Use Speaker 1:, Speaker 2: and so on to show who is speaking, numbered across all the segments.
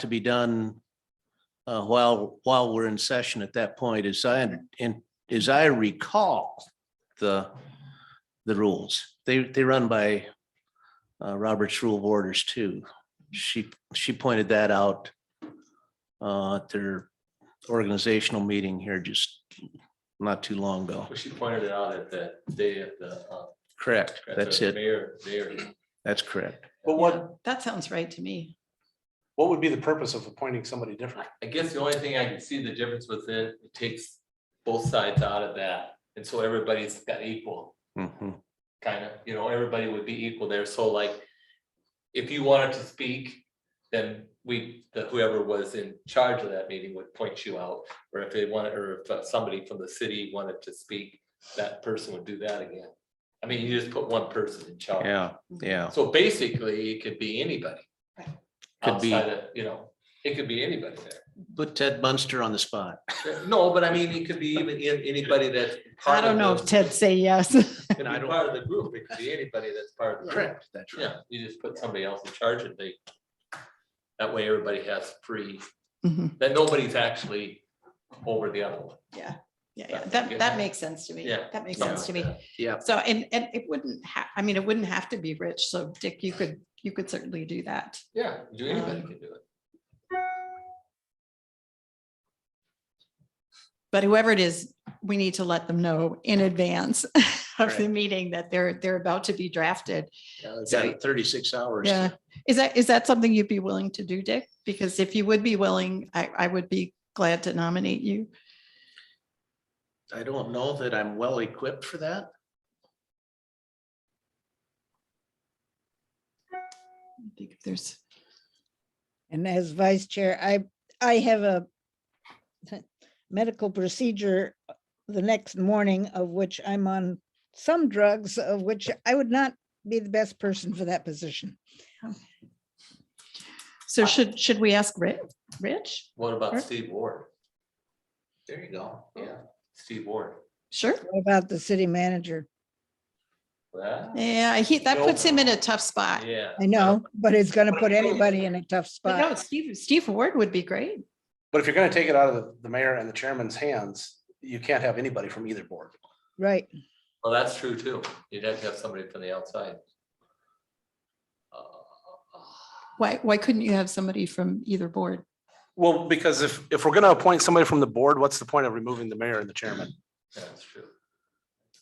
Speaker 1: to be done uh, while, while we're in session at that point, as I, un- and as I recall, the, the rules, they, they run by uh, Robert's Rule of Orders too. She, she pointed that out uh, at their organizational meeting here just not too long ago.
Speaker 2: Well, She pointed it out at the day of the. uh,
Speaker 1: Correct,
Speaker 2: at the
Speaker 1: that's it,
Speaker 2: Mayor, mayor.
Speaker 1: that's correct.
Speaker 3: But
Speaker 4: Yeah,
Speaker 3: what,
Speaker 4: That sounds right to me.
Speaker 3: what would be the purpose of appointing somebody different?
Speaker 2: I guess the only thing I can see the difference with it, it takes both sides out of that. And so everybody's got equal,
Speaker 1: Mhm.
Speaker 2: kind of, you know, everybody would be equal there. So like, if you wanted to speak, then we, the whoever was in charge of that meeting would point you out. Or if they wanted, or if uh, somebody from the city wanted to speak, that person would do that again. I mean, you just put one person in charge.
Speaker 1: Yeah, yeah,
Speaker 2: So basically, it could be anybody.
Speaker 1: Could be-
Speaker 2: Outside of, you know, it could be anybody there.
Speaker 1: put Ted Munster on the spot.
Speaker 2: No, but I mean, it could be even in- anybody that's.
Speaker 4: I
Speaker 2: part of
Speaker 4: don't know
Speaker 2: the-
Speaker 4: if Ted say yes.
Speaker 2: it could be Part of the group, it could be anybody that's part of the group.
Speaker 1: Correct, that's right.
Speaker 2: Yeah, you just put somebody else in charge and they. That way, everybody has free,
Speaker 4: Mhm.
Speaker 2: that nobody's actually over the other one.
Speaker 4: Yeah, yeah, yeah. That, that makes sense to me.
Speaker 2: Yeah.
Speaker 4: That makes
Speaker 2: something
Speaker 4: sense to me.
Speaker 2: like
Speaker 1: Yeah,
Speaker 4: So, and, and it wouldn't have, I mean, it wouldn't have to be Rich. So Dick, you could, you could certainly do that.
Speaker 2: that. Yeah, do anybody
Speaker 4: Um,
Speaker 2: can do it.
Speaker 4: But whoever it is, we need to let them know in advance of the meeting that they're, they're about to be drafted.
Speaker 1: yeah, they've
Speaker 4: So-
Speaker 1: got thirty-six hours. to-
Speaker 4: Yeah. Is that, is that something you'd be willing to do, Dick? Because if you would be willing, I, I would be glad to nominate you.
Speaker 1: I don't know that I'm well equipped for that.
Speaker 4: I think if there's.
Speaker 5: And as vice chair, I, I have a medical procedure the next morning of which I'm on some drugs of which I would not be the best person for that position.
Speaker 4: So should, should we ask Rich? Rich?
Speaker 2: What about
Speaker 4: Sure.
Speaker 2: Steve Ward? There you go. Yeah, Steve Ward.
Speaker 4: Sure.
Speaker 5: What about the city manager?
Speaker 2: Well,
Speaker 4: Yeah, he, that puts him in a tough spot.
Speaker 2: Yeah.
Speaker 5: I know, but it's gonna put anybody in a tough
Speaker 4: But no,
Speaker 5: spot.
Speaker 4: Steve, Steve Ward would be great.
Speaker 3: But if you're gonna take it out of the, the mayor and the chairman's hands, you can't have anybody from either board.
Speaker 5: Right.
Speaker 2: Well, that's true too. You'd have to have somebody from the outside. Uh,
Speaker 4: Why, why couldn't you have somebody from either board?
Speaker 3: Well, because if, if we're gonna appoint somebody from the board, what's the point of removing the mayor and the chairman?
Speaker 2: That's true.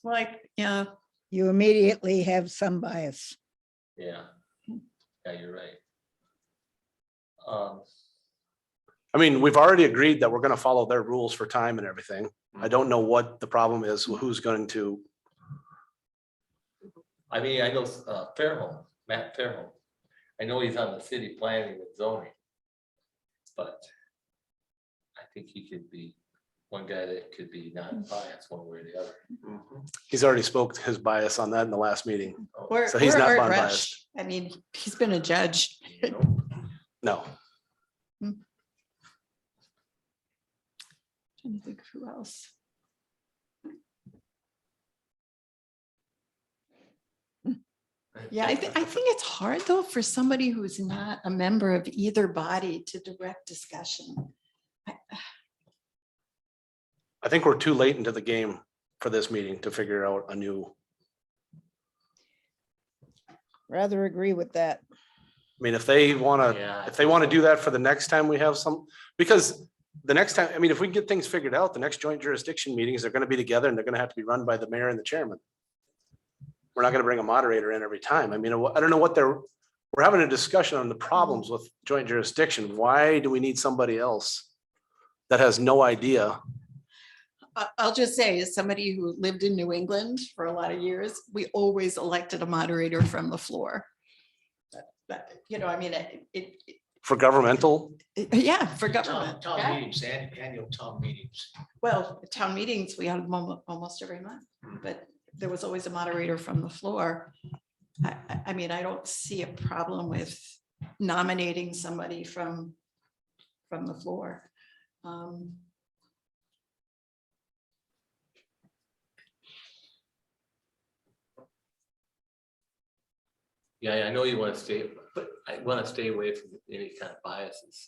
Speaker 4: Like, yeah,
Speaker 5: You immediately have some bias.
Speaker 2: Yeah. Yeah, you're right. Um,
Speaker 3: I mean, we've already agreed that we're gonna follow their rules for time and everything. I don't know what the problem is, who's going to,
Speaker 2: I mean, I know uh, Fairholm, Matt Fairholm. I know he's on the city planning and zoning. But I think he could be one guy that could be not biased one way or the other.
Speaker 3: he's already spoke his bias on that in the last meeting.
Speaker 2: Oh,
Speaker 4: or,
Speaker 3: So he's
Speaker 4: or
Speaker 3: not
Speaker 4: Art
Speaker 3: bond
Speaker 4: Rush.
Speaker 3: biased.
Speaker 4: I mean, he's been a judge.
Speaker 3: No,
Speaker 4: Trying to think of who else. Yeah, I think, I think it's hard though for somebody who's not a member of either body to direct discussion.
Speaker 3: I think we're too late into the game for this meeting to figure out a new,
Speaker 5: Rather agree with that.
Speaker 3: I mean, if they wanna
Speaker 2: Yeah.
Speaker 3: if they want to do that for the next time we have some, because the next time, I mean, if we can get things figured out, the next joint jurisdiction meetings are going to be together and they're going to have to be run by the mayor and the chairman. We're not going to bring a moderator in every time. I mean, I don't know what they're, we're having a discussion on the problems with joint jurisdiction. Why do we need somebody else that has no idea?
Speaker 4: I- I'll just say, as somebody who lived in New England for a lot of years, we always elected a moderator from the floor. That- that- you know, I mean, it, it,
Speaker 3: For governmental,
Speaker 4: it- yeah, for
Speaker 1: Town
Speaker 4: government.
Speaker 1: town
Speaker 4: yeah.
Speaker 1: meetings, an- annual town meetings.
Speaker 4: Well, town meetings, we had them almo- almost every month, but there was always a moderator from the floor. I, I, I mean, I don't see a problem with nominating somebody from, from the floor. Um,
Speaker 2: Yeah, I know you want to stay, but I want to stay away from any kind of biases.